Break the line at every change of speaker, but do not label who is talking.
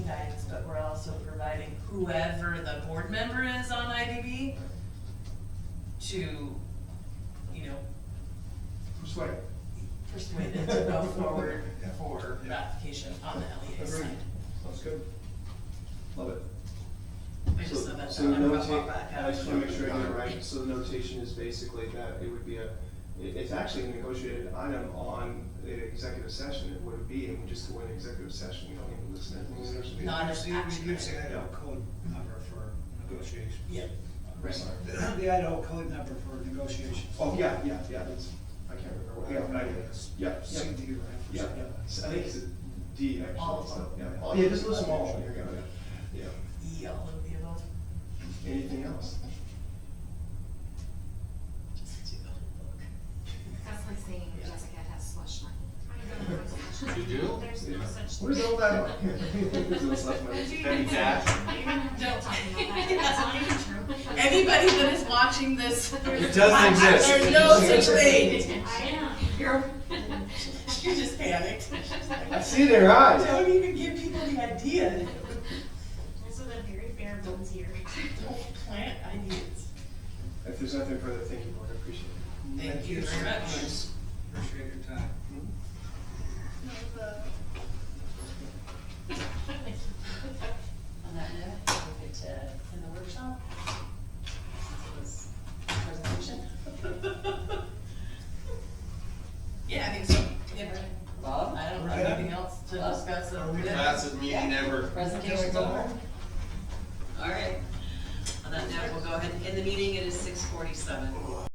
guidance, but we're also providing whoever the board member is on IDB to, you know,
Persuade.
persuade it to go forward
Yeah.
for
Yeah.
ratification on the LEA
Agreed.
side.
Sounds good. Love it.
I just said that,
So the
I'm gonna
notation,
walk back
I
out.
just wanna make sure I get it right, so the notation is basically that it would be a, it, it's actually a negotiated item on the executive session, it would be, and we just go in executive session, we don't even listen to anything, there's
No. Not as
We- we-
action
We use the
item.
Idaho code number for negotiations.
Yeah,
Right.
The Idaho code number for negotiations.
Oh, yeah, yeah, yeah, it's, I can't remember what, yeah, I, yeah, yeah,
CD, right?
yeah, yeah, So I think it's a D actually,
All of
so,
them.
yeah, oh, yeah, just list them all, here, you go, yeah,
E, all of the above.
yeah, anything else?
Just do the whole book.
That's like saying
Yeah.
Jessica has slush money. I don't know what slush
You do?
There's no
Yeah.
such.
What is all that? There's no such money.
Penny Jackson.
Don't talk about that. That's not even true.
Anybody that is watching this.
It doesn't exist.
There's no such thing.
I know. You're.
You just panicked.
I see their eyes.
Don't even give people the idea.
This is a very bare bones here.
Don't plant ideas.
If there's nothing further, thank you, board, I appreciate it.
Thank you very much.
Appreciate your time.
On that note, we get to end the workshop. This was presentation. Yeah, I think so. Yeah. Bob, I don't have anything else to discuss.
Fastest meeting ever.
Presentation's over.